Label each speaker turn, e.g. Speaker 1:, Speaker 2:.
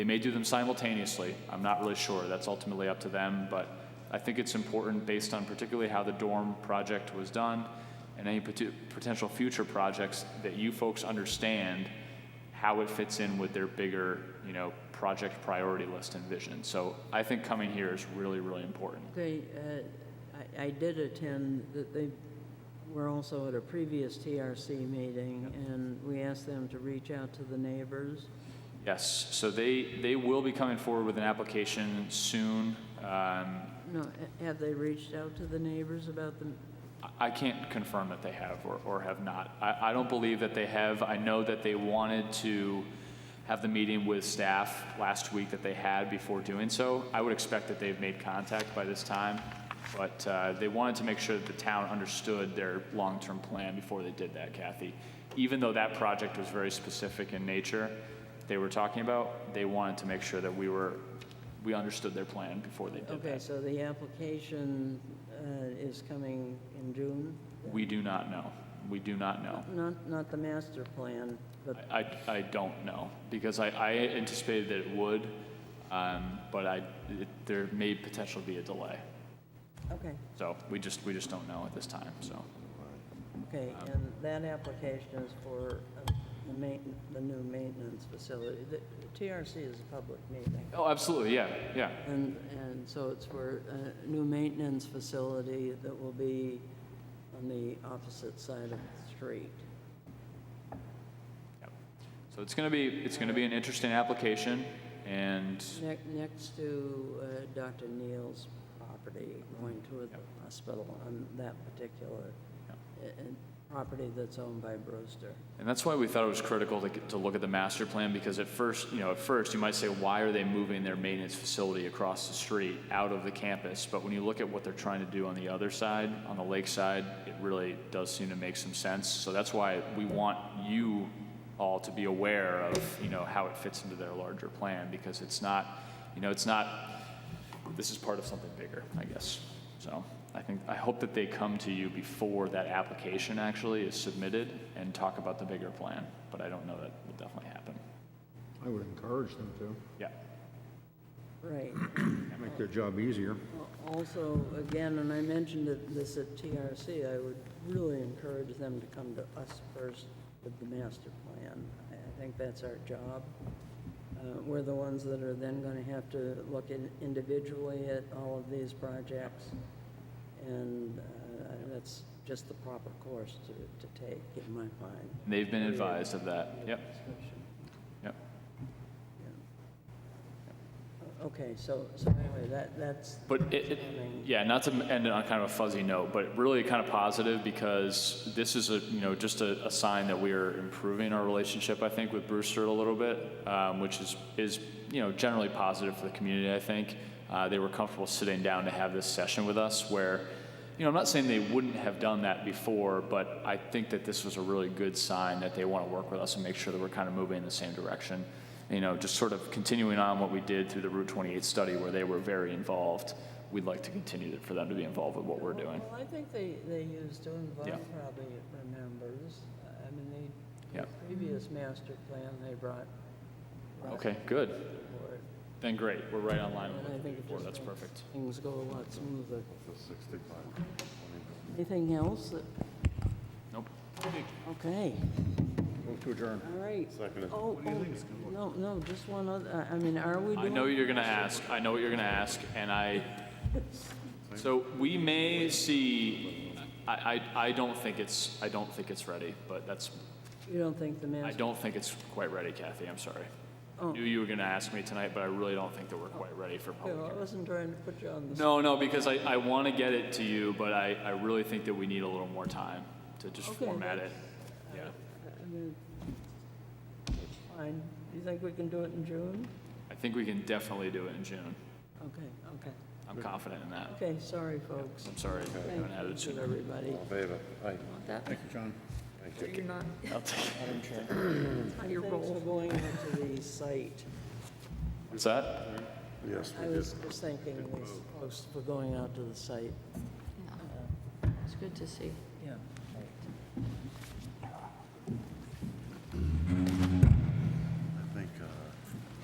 Speaker 1: They may do them simultaneously. I'm not really sure. That's ultimately up to them, but I think it's important based on particularly how the dorm project was done and any pot- potential future projects that you folks understand how it fits in with their bigger, you know, project priority list and vision. So I think coming here is really, really important.
Speaker 2: Okay, uh, I, I did attend, that they were also at a previous TRC meeting, and we asked them to reach out to the neighbors.
Speaker 1: Yes, so they, they will be coming forward with an application soon. Um,
Speaker 2: No, ha- have they reached out to the neighbors about the,
Speaker 1: I- I can't confirm that they have or, or have not. I, I don't believe that they have. I know that they wanted to have the meeting with staff last week that they had before doing so. I would expect that they've made contact by this time, but uh, they wanted to make sure that the town understood their long-term plan before they did that, Kathy. Even though that project was very specific in nature they were talking about, they wanted to make sure that we were, we understood their plan before they did
Speaker 2: okay,
Speaker 1: that.
Speaker 2: so the application uh, is coming in June?
Speaker 1: We do not know. We do not know.
Speaker 2: Not, not the master plan, but,
Speaker 1: I, I I don't know, because I, I anticipated that it would, um, but I, it- there may potentially be a delay.
Speaker 2: okay,
Speaker 1: So we just, we just don't know at this time, so.
Speaker 2: okay, and that application is for uh, the main, the new maintenance facility. The TRC is a public meeting.
Speaker 1: Oh, absolutely, yeah, yeah.
Speaker 2: And, and so it's for a new maintenance facility that will be on the opposite side of the street.
Speaker 1: Yep. So it's gonna be, it's gonna be an interesting application, and
Speaker 2: Ne- Next to uh, Dr. Neal's property, going to
Speaker 1: Yep.
Speaker 2: a hospital on that particular
Speaker 1: Yep.
Speaker 2: uh, uh, property that's owned by Brewster.
Speaker 1: And that's why we thought it was critical to, to look at the master plan because at first, you know, at first you might say, why are they moving their maintenance facility across the street out of the campus? But when you look at what they're trying to do on the other side, on the lake side, it really does seem to make some sense. So that's why we want you all to be aware of, you know, how it fits into their larger plan because it's not, you know, it's not, this is part of something bigger, I guess. So I think, I hope that they come to you before that application actually is submitted and talk about the bigger plan, but I don't know that will definitely happen.
Speaker 3: I would encourage them to,
Speaker 1: Yeah.
Speaker 2: Right.
Speaker 3: make their job easier.
Speaker 2: Al- Also, again, and I mentioned it- this at TRC, I would really encourage them to come to us first with the master plan. I I think that's our job. Uh, We're the ones that are then going to have to look in- individually at all of these projects, and uh, that's just the proper course to to take, in my mind.
Speaker 1: And They've been advised of that. Yep, yep.
Speaker 2: Okay, so, so anyway, that, that's.
Speaker 1: But it, it,
Speaker 2: Timing.
Speaker 1: yeah, not to end it on kind of a fuzzy note, but really kind of positive because this is a, you know, just a, a sign that we are improving our relationship, I think, with Brewster a little bit, um, which is, is, you know, generally positive for the community, I think. Uh, they were comfortable sitting down to have this session with us where, you know, I'm not saying they wouldn't have done that before, but I think that this was a really good sign that they want to work with us and make sure that we're kind of moving in the same direction. You know, just sort of continuing on what we did through the Route 28 study where they were very involved. We'd like to continue for them to be involved with what we're doing.
Speaker 2: Well, I think they, they used, to and
Speaker 1: Yeah.
Speaker 2: Vaughn probably remembers. I mean, they,
Speaker 1: Yeah.
Speaker 2: the previous master plan, they brought. brought
Speaker 1: Okay, good.
Speaker 2: for it.
Speaker 1: Then great, we're right on line with
Speaker 2: And I
Speaker 1: what we
Speaker 2: think
Speaker 1: did
Speaker 2: it
Speaker 1: before,
Speaker 2: just
Speaker 1: that's
Speaker 2: makes
Speaker 1: perfect.
Speaker 2: Things go a lot smoother. Anything else? that-
Speaker 1: Nope.
Speaker 2: Okay,
Speaker 3: Move to adjourn.
Speaker 2: all right. Second. Oh, oh, no, no, just one other, I I mean, are we
Speaker 1: I
Speaker 2: doing?
Speaker 1: know you're gonna ask, I know what you're gonna ask, and I, so we may see, I, I, I don't think it's, I don't think it's ready, but that's,
Speaker 2: You don't think the
Speaker 1: I
Speaker 2: master,
Speaker 1: don't think it's quite ready, Kathy, I'm sorry.
Speaker 2: Oh.
Speaker 1: I Knew you were gonna ask me tonight, but I really don't think that we're quite ready for
Speaker 2: I
Speaker 1: public. hearing.
Speaker 2: wasn't trying to put you on the.
Speaker 1: No, no, because I, I wanna get it to you, but I, I really think that we need a little more time to just
Speaker 2: Okay,
Speaker 1: format it. Yeah,
Speaker 2: I mean, Fine, you think we can do it in June?
Speaker 1: I think we can definitely do it in June,
Speaker 2: Okay, okay.
Speaker 1: I'm confident in that.
Speaker 2: Okay, sorry, folks.
Speaker 1: I'm sorry, I
Speaker 2: Thank
Speaker 1: haven't had
Speaker 2: you
Speaker 1: it
Speaker 2: to
Speaker 1: sooner.
Speaker 2: everybody.
Speaker 4: favor? Aye.
Speaker 3: Thank you, John.
Speaker 5: You're not,
Speaker 1: I'll take it.
Speaker 5: on your
Speaker 2: Thanks for
Speaker 5: roll.
Speaker 2: going out to the site.
Speaker 1: What's that?
Speaker 4: Yes,
Speaker 2: I
Speaker 4: we did.
Speaker 2: was just thanking these folks for going out to the site.
Speaker 5: Yeah. It's good to see.